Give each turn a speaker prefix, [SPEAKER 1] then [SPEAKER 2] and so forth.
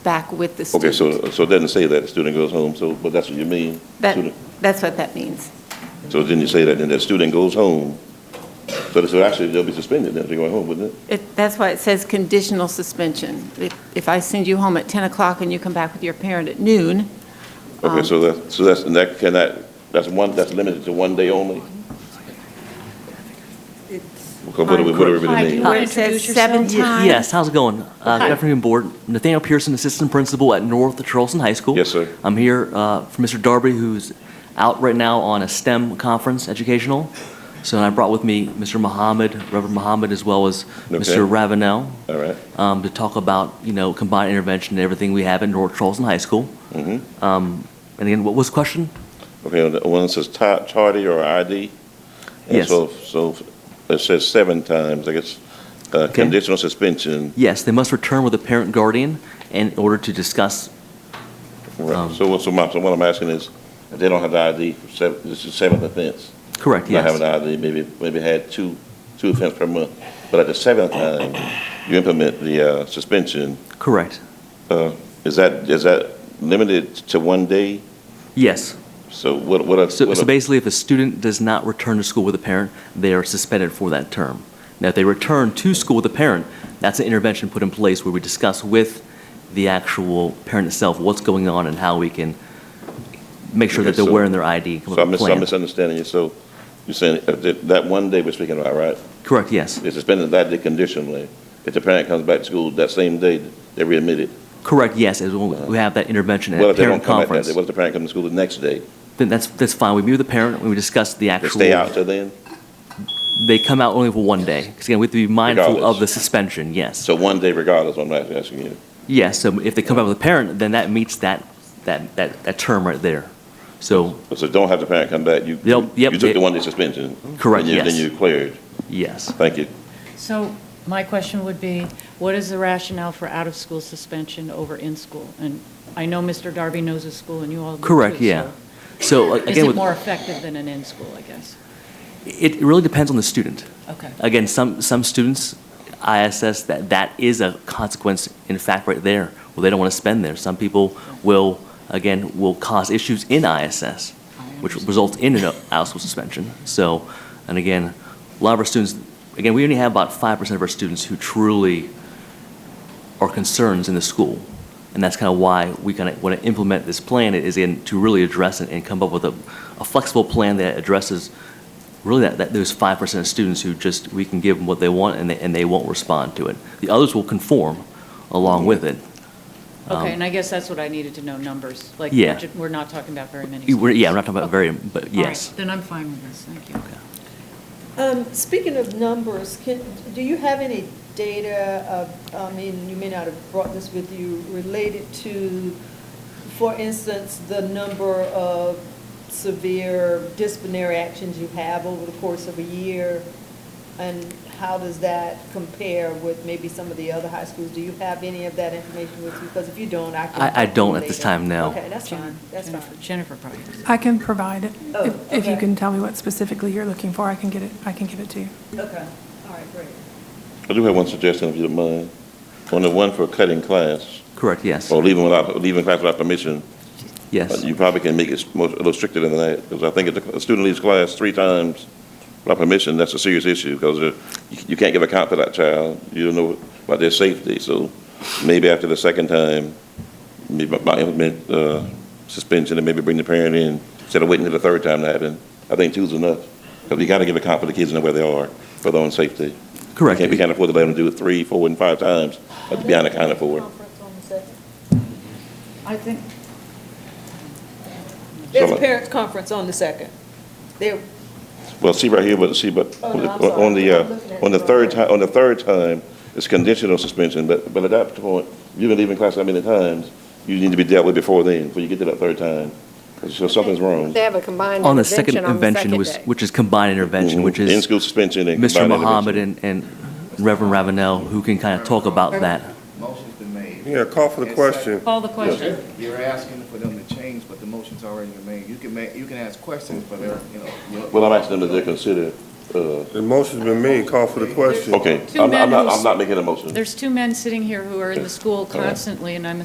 [SPEAKER 1] back with the
[SPEAKER 2] Okay,
[SPEAKER 1] student.
[SPEAKER 2] so, so it doesn't say that a student goes home, so, but that's what you mean?
[SPEAKER 1] That,
[SPEAKER 2] Student-
[SPEAKER 1] that's what that means.
[SPEAKER 2] So then you say that, then that student goes home, so this, so actually they'll be suspended then if they go home, wouldn't it?
[SPEAKER 1] It, that's why it says conditional suspension. If, if I send you home at 10 o'clock and you come back with your parent at noon,
[SPEAKER 2] Okay,
[SPEAKER 3] Um,
[SPEAKER 2] so that, so that's, and that cannot, that's one, that's limited to one day only? Because what do we, what do we
[SPEAKER 4] Hi, do
[SPEAKER 2] really
[SPEAKER 4] you
[SPEAKER 2] mean?
[SPEAKER 4] want
[SPEAKER 1] where
[SPEAKER 4] to
[SPEAKER 1] it says
[SPEAKER 4] introduce yourself?
[SPEAKER 1] seven times.
[SPEAKER 3] Yes, how's it going? Uh,
[SPEAKER 4] Hi.
[SPEAKER 3] Good afternoon, Board. Nathaniel Pearson, Assistant Principal at North Charleston High School.
[SPEAKER 2] Yes, sir.
[SPEAKER 3] I'm here uh, for Mr. Darby, who's out right now on a STEM conference educational. So I brought with me Mr. Mohammed, Reverend Mohammed, as well as Mr.
[SPEAKER 2] Okay.
[SPEAKER 3] Ravenel,
[SPEAKER 2] All right,
[SPEAKER 3] um, to talk about, you know, combined intervention and everything we have at North Charleston High School.
[SPEAKER 2] Mm-hmm.
[SPEAKER 3] Um, And again, what was the question?
[SPEAKER 2] okay, and the one that says ti- tardy or ID? and
[SPEAKER 3] Yes.
[SPEAKER 2] So, so it says seven times, I guess, uh, conditional suspension,
[SPEAKER 3] Yes, they must return with a parent guardian in order to discuss,
[SPEAKER 2] right,
[SPEAKER 3] Um,
[SPEAKER 2] so what, so my, so what I'm asking is, if they don't have the ID, for seven, this is seventh offense?
[SPEAKER 3] correct,
[SPEAKER 2] not
[SPEAKER 3] yes.
[SPEAKER 2] having an ID, maybe, maybe had two, two offenses per month. But at the seventh
[SPEAKER 3] Oh.
[SPEAKER 2] time, you implement the uh, suspension.
[SPEAKER 3] Correct,
[SPEAKER 2] Uh, Is that, is that limited to one day?
[SPEAKER 3] yes.
[SPEAKER 2] So what, what? a-
[SPEAKER 3] So,
[SPEAKER 2] what
[SPEAKER 3] so
[SPEAKER 2] a-
[SPEAKER 3] basically, if a student does not return to school with a parent, they are suspended for that term. Now, if they return to school with a parent, that's an intervention put in place where we discuss with the actual parent itself what's going on and how we can make sure that
[SPEAKER 2] Okay,
[SPEAKER 3] they're
[SPEAKER 2] so-
[SPEAKER 3] wearing their ID.
[SPEAKER 2] So
[SPEAKER 3] come up
[SPEAKER 2] I'm
[SPEAKER 3] with
[SPEAKER 2] mis-
[SPEAKER 3] a
[SPEAKER 2] I'm
[SPEAKER 3] plan.
[SPEAKER 2] misunderstanding you. So you're saying if that- that one day we're speaking about, right?
[SPEAKER 3] Correct, yes.
[SPEAKER 2] They suspended that day conditionally. If the parent comes back to school that same day, they're readmitted.
[SPEAKER 3] Correct, yes, is when we have that intervention at
[SPEAKER 2] What
[SPEAKER 3] a
[SPEAKER 2] if they don't
[SPEAKER 3] parent
[SPEAKER 2] come back that
[SPEAKER 3] conference.
[SPEAKER 2] day? What if the parent comes to school the next day?
[SPEAKER 3] Then that's, that's fine. We meet with the parent, and we discuss the
[SPEAKER 2] They
[SPEAKER 3] actual.
[SPEAKER 2] stay out till then?
[SPEAKER 3] They come out only for one day. Because again, we have to be mindful
[SPEAKER 2] Regardless.
[SPEAKER 3] of the suspension, yes.
[SPEAKER 2] So one day regardless, I'm not asking you.
[SPEAKER 3] Yes, so if they come back with a parent, then that meets that, that, that, that term right there. So,
[SPEAKER 2] So don't have the parent come back. You,
[SPEAKER 3] Yep, yep,
[SPEAKER 2] you took
[SPEAKER 3] they-
[SPEAKER 2] the one day suspension.
[SPEAKER 3] Correct,
[SPEAKER 2] and you- Then
[SPEAKER 3] yes.
[SPEAKER 2] you cleared.
[SPEAKER 3] yes.
[SPEAKER 2] Thank you.
[SPEAKER 4] So my question would be, what is the rationale for out-of-school suspension over in-school? And I know Mr. Darby knows his school and you all do too.
[SPEAKER 3] Correct, yeah. So
[SPEAKER 4] so uh, Is it
[SPEAKER 3] again,
[SPEAKER 4] more
[SPEAKER 3] with-
[SPEAKER 4] effective than an in-school, I guess?
[SPEAKER 3] it really depends on the student.
[SPEAKER 4] Okay.
[SPEAKER 3] Again, some, some students, ISS, that, that is a consequence in fact right there, well, they don't want to spend there. Some people will, again, will cause issues in ISS, which
[SPEAKER 4] understand.
[SPEAKER 3] results in an out-of-school suspension. So, and again, a lot of our students, again, we only have about 5% of our students who truly are concerns in the school. And that's kind of why we kind of want to implement this plan is in, to really address it and come up with a, a flexible plan that addresses really that, that those 5% of students who just, we can give them what they want and they, and they won't respond to it. The others will conform along with it. Um,
[SPEAKER 4] Okay, and I guess that's what I needed to know, numbers. Like,
[SPEAKER 3] Yeah.
[SPEAKER 4] we're ju- we're not talking about very many.
[SPEAKER 3] You- we're- Yeah, I'm not
[SPEAKER 4] schools.
[SPEAKER 3] talking about
[SPEAKER 4] Okay.
[SPEAKER 3] very, but
[SPEAKER 4] All right,
[SPEAKER 3] yes.
[SPEAKER 4] Then I'm fine with this, thank you.
[SPEAKER 5] Um, Speaking of numbers, can, do you have any data of, I mean, you may not have brought this with you, related to, for instance, the number of severe disciplinary actions you have over the course of a year? And how does that compare with maybe some of the other high schools? Do you have any of that information with you? Because if you don't, I can.
[SPEAKER 3] I- I don't at this
[SPEAKER 5] later.
[SPEAKER 3] time, no.
[SPEAKER 5] Okay, that's fine, that's fine.
[SPEAKER 4] Jennifer- Jennifer probably. does.
[SPEAKER 6] I can provide it.
[SPEAKER 5] Oh,
[SPEAKER 6] If- If you
[SPEAKER 5] okay.
[SPEAKER 6] can tell me what specifically you're looking for, I can get it, I can give it to you.
[SPEAKER 5] Okay, all right, great.
[SPEAKER 2] I do have one suggestion, if you don't mind, on the one for cutting class,
[SPEAKER 3] Correct, yes,
[SPEAKER 2] or leaving without, leaving class without permission. uh,
[SPEAKER 3] yes.
[SPEAKER 2] You probably can make it more, a little stricter than that, because I think if a student leaves class three times without permission, that's a serious issue, because uh, you you can't give account to that child, you don't know about their safety, so maybe after the second time, maybe by implement, uh, suspension, and maybe bring the parent in, instead of waiting till the third time to happen. I think two's enough, because you gotta give account for the kids and know where they are, for their own safety.
[SPEAKER 3] Correct.
[SPEAKER 2] We can't- We can't afford to let them do it three, four, and five times, but be unaccounted for.
[SPEAKER 5] Conference on the second.
[SPEAKER 4] I think,
[SPEAKER 5] There's a
[SPEAKER 2] So-
[SPEAKER 5] parents' conference on the second. There,
[SPEAKER 2] Well, see right here, but see, but
[SPEAKER 5] Oh, no, I'm sorry.
[SPEAKER 2] on the,
[SPEAKER 5] I'm looking
[SPEAKER 2] uh,
[SPEAKER 5] at
[SPEAKER 2] on the
[SPEAKER 5] the
[SPEAKER 2] third
[SPEAKER 5] wrong-
[SPEAKER 2] time, on the third time, it's conditional suspension, but, but at that point, you've been leaving class that many times, you need to be dealt with before then, before you get to that third time. So something's wrong.
[SPEAKER 7] They have a combined
[SPEAKER 3] On the second
[SPEAKER 7] on the
[SPEAKER 3] invention,
[SPEAKER 7] second
[SPEAKER 3] was-
[SPEAKER 7] day.
[SPEAKER 3] which is combined
[SPEAKER 2] Mm-hmm.
[SPEAKER 3] intervention, which is.
[SPEAKER 2] In-school suspension and.
[SPEAKER 3] Mr.
[SPEAKER 2] combined
[SPEAKER 3] Mohammed
[SPEAKER 2] intervention.
[SPEAKER 3] and and Reverend Ravenel, who can kind of talk about that.
[SPEAKER 8] Motion's been made.
[SPEAKER 9] Yeah, call for the
[SPEAKER 8] It's
[SPEAKER 9] question.
[SPEAKER 4] call the question.
[SPEAKER 8] second. You're asking for them to change, but the motion's already been made. You can make, you can ask questions, but they're, you know. you-
[SPEAKER 2] Well, I'm asking them if they consider, uh,
[SPEAKER 9] The motion's been made, call for the question.
[SPEAKER 2] okay,
[SPEAKER 4] Two
[SPEAKER 2] I'm, I'm
[SPEAKER 4] men
[SPEAKER 2] not,
[SPEAKER 4] who's-
[SPEAKER 2] I'm not making a motion.
[SPEAKER 4] There's two men sitting here who are in the school constantly, and I'm